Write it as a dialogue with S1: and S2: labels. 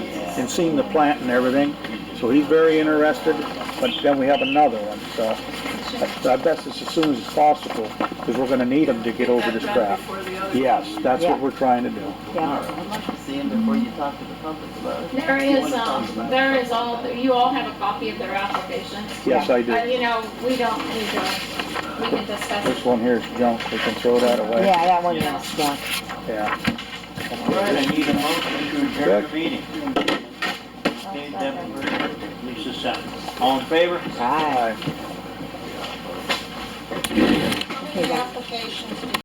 S1: and seen the plant and everything, so he's very interested, but then we have another one, so. but I best it's as soon as possible, because we're gonna need him to get over this crap. Yes, that's what we're trying to do.
S2: Yeah.
S3: I'd like to see him before you talk to the public about it.
S4: There is, um, there is all, you all have a copy of their application.
S1: Yes, I do.
S4: Uh, you know, we don't need to, we can discuss
S1: This
S4: it.
S1: one here is junk, we can throw that away.
S2: Yeah, that one is junk.
S1: Yeah.
S3: All right, I need a motion to adjourn the meeting. Dave Devenport, Lisa Sutton. All in favor?
S2: Aye.
S5: How many applications do